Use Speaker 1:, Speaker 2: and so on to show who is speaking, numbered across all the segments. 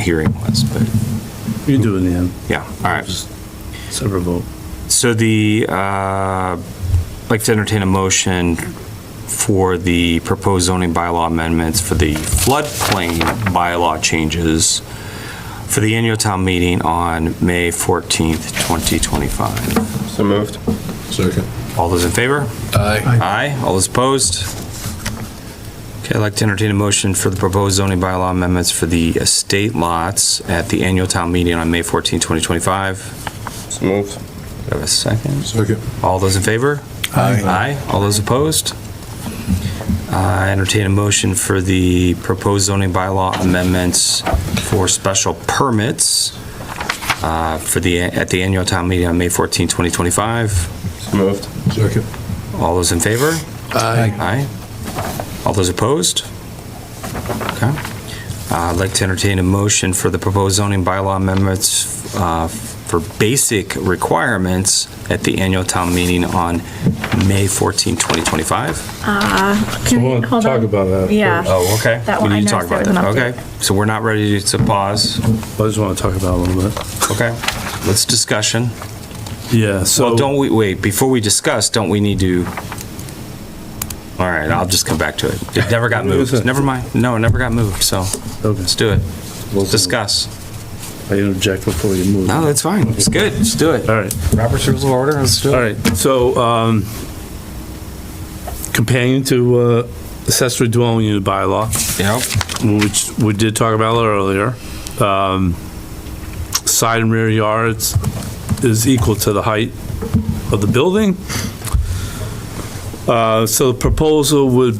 Speaker 1: hearing was, but
Speaker 2: You do in the end.
Speaker 1: yeah, all right.
Speaker 2: Just Separate vote.
Speaker 1: So the, uh, I'd like to entertain a motion for the proposed zoning bylaw amendments for the floodplain bylaw changes for the annual town meeting on May 14th, 2025.
Speaker 3: So moved.
Speaker 4: Second.
Speaker 1: All those in favor?
Speaker 4: Aye.
Speaker 1: Aye. All those opposed? Okay, I'd like to entertain a motion for the proposed zoning bylaw amendments for the estate lots at the annual town meeting on May 14th, 2025.
Speaker 3: So moved.
Speaker 1: Do I have a second?
Speaker 4: Second.
Speaker 1: All those in favor? Aye. All those opposed? I entertain a motion for the proposed zoning bylaw amendments for special permits uh, for the, at the annual town meeting on May 14, 2025.
Speaker 3: So moved.
Speaker 4: Second.
Speaker 1: All those in favor?
Speaker 4: Aye.
Speaker 1: Aye. All those opposed? Okay. Uh, I'd like to entertain a motion for the proposed zoning bylaw amendments uh, for basic requirements at the annual town meeting on May 14, 2025.
Speaker 2: So we'll
Speaker 5: Hold
Speaker 2: talk
Speaker 5: on.
Speaker 2: about that.
Speaker 5: Yeah.
Speaker 2: first.
Speaker 1: Oh, okay.
Speaker 5: That
Speaker 1: We
Speaker 5: one- I
Speaker 1: need to talk about
Speaker 5: noticed
Speaker 1: that.
Speaker 5: there was an
Speaker 1: Okay, so we're not ready to pause.
Speaker 2: I just want to talk about it a little bit.
Speaker 1: Okay, let's discussion.
Speaker 2: Yeah,
Speaker 1: Well,
Speaker 2: so.
Speaker 1: don't we, wait, before we discuss, don't we need to? All right, I'll just come back to it. It never got moved. Never mind. No, it never got moved, so
Speaker 2: Okay.
Speaker 1: let's do it. Discuss.
Speaker 2: I interject before you move.
Speaker 1: No, that's fine. It's good. Let's do it.
Speaker 2: All right.
Speaker 1: Robert's Rules of Order, let's do
Speaker 2: All right, so, um, companion to, uh, accessory dwelling unit bylaw,
Speaker 1: Yep.
Speaker 2: which we did talk about earlier, um, side and rear yards is equal to the height of the building. Uh, so the proposal would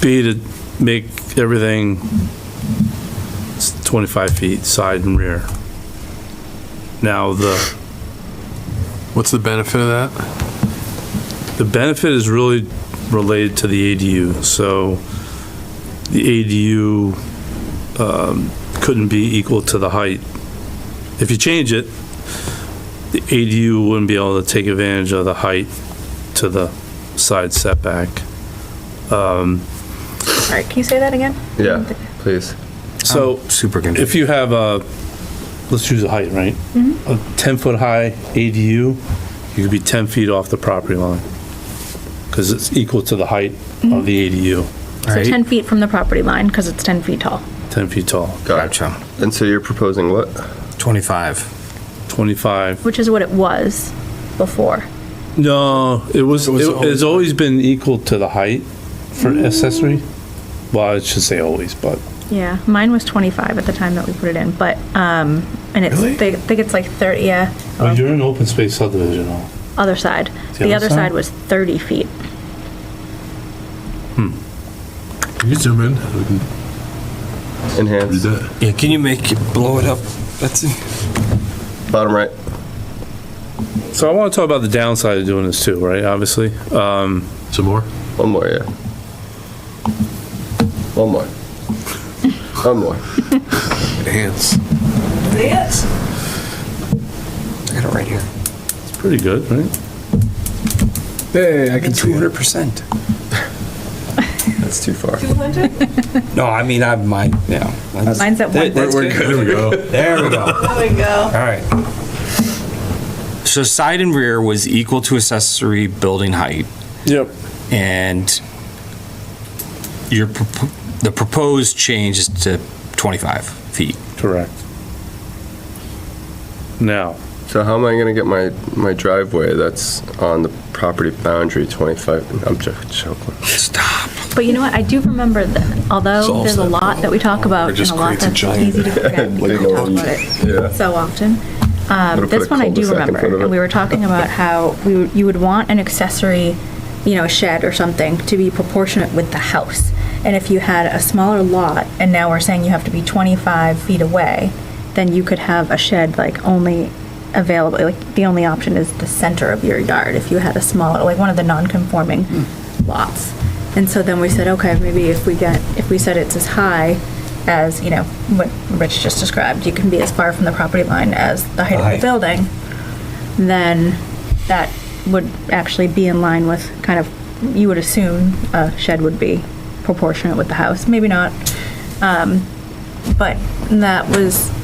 Speaker 2: be to make everything 25 feet, side and rear. Now, the
Speaker 4: What's the benefit of that?
Speaker 2: The benefit is really related to the ADU, so the ADU um, couldn't be equal to the height. If you change it, the ADU wouldn't be able to take advantage of the height to the side setback.
Speaker 5: All right, can you say that again?
Speaker 3: Yeah, please.
Speaker 2: So
Speaker 1: Super good.
Speaker 2: if you have a, let's choose a height, right? A 10-foot-high ADU, you could be 10 feet off the property line, because it's equal to the height of the ADU,
Speaker 5: So 10 feet from the property line, because it's 10 feet tall.
Speaker 2: 10 feet tall.
Speaker 1: Gotcha.
Speaker 3: And so you're proposing what?
Speaker 1: 25.
Speaker 2: 25.
Speaker 5: Which is what it was before.
Speaker 2: No, it was,
Speaker 4: It was
Speaker 2: it- it's always Mm. been equal to the height for accessory. Well, I should say always, but
Speaker 5: Yeah, mine was 25 at the time that we put it in, but, um, and it's,
Speaker 2: Really?
Speaker 5: they, I think it's like 30, yeah,
Speaker 2: Oh, you're in open space subdivision now.
Speaker 5: other side.
Speaker 2: The
Speaker 5: The
Speaker 2: other
Speaker 5: other
Speaker 2: side?
Speaker 5: side was 30 feet.
Speaker 4: Can you zoom in? We can read
Speaker 3: Enhance.
Speaker 4: that.
Speaker 1: Yeah, can you make it blow it up? That's
Speaker 3: Bottom right.
Speaker 2: So I want to talk about the downside of doing this too, right? Obviously. Um,
Speaker 4: Some more?
Speaker 3: One more, yeah. One more. One more.
Speaker 4: Hands.
Speaker 1: I got it right here.
Speaker 2: It's pretty good, right?
Speaker 4: Hey, I can see it.
Speaker 1: 200%.
Speaker 3: That's too far.
Speaker 1: No, I mean, I might, yeah. that's-
Speaker 5: Mine's at
Speaker 1: that-
Speaker 5: one.
Speaker 1: that's
Speaker 5: We're
Speaker 4: There we go.
Speaker 1: There we go. There we go. All right. So side and rear was equal to accessory building height,
Speaker 2: Yep.
Speaker 1: and your, propo- the proposed change is to 25 feet.
Speaker 2: Correct. Now,
Speaker 3: So how am I gonna get my, my driveway that's on the property boundary 25? I'm just joking.
Speaker 1: Stop.
Speaker 5: But you know what, I do remember that, although
Speaker 4: Solves
Speaker 5: there's a
Speaker 4: that
Speaker 5: lot that we talk
Speaker 4: Or
Speaker 5: about, and
Speaker 4: just
Speaker 5: a lot
Speaker 4: creates a
Speaker 5: that's
Speaker 4: giant-
Speaker 5: easy to forget,
Speaker 3: like
Speaker 5: we
Speaker 3: a
Speaker 5: talk
Speaker 3: little-
Speaker 5: about it so often.
Speaker 3: Gonna
Speaker 5: Um,
Speaker 3: put
Speaker 5: this
Speaker 3: a
Speaker 5: one I do
Speaker 3: cul-de-sac in
Speaker 5: remember,
Speaker 3: front of
Speaker 5: and
Speaker 3: it.
Speaker 5: we were talking about how we, would- you would want an accessory, you know, a shed or something to be proportionate with the house. And if you had a smaller lot, and now we're saying you have to be 25 feet away, then you could have a shed like only available, like the only option is the center of your yard if you had a smaller, like one of the non-conforming lots. And so then we said, okay, maybe if we get, if we said it's as high as, you know, what Rich just described, you can be as far from the property line as the height of the building, then that would actually be in line with kind of, you would assume a shed would be proportionate with the house, maybe not. Um, But that was